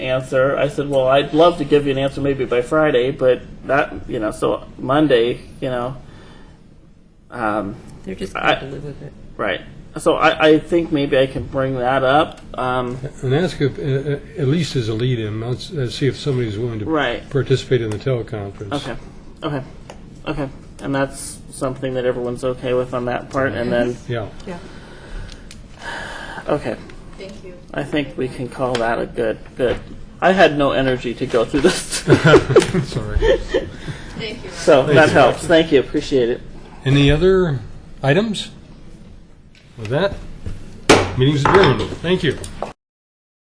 answer. I said, well, I'd love to give you an answer maybe by Friday, but that, you know, so Monday, you know. Um, They're just I- going to live with it. right. So I, I think maybe I can bring that up. Um, And ask if, uh, uh, at least as a lead-in, let's uh, see if somebody's willing to Right. participate in the teleconference. Okay. Okay. Okay. And that's something that everyone's okay with on that part. And then, Yeah. okay. Thank you. I think we can call that a good, good. I had no energy to go through this, Sorry. Thank you. Ryan. so that you. helps. Thank you. Appreciate it. Any other items? With that, meeting's adjourned. Thank you.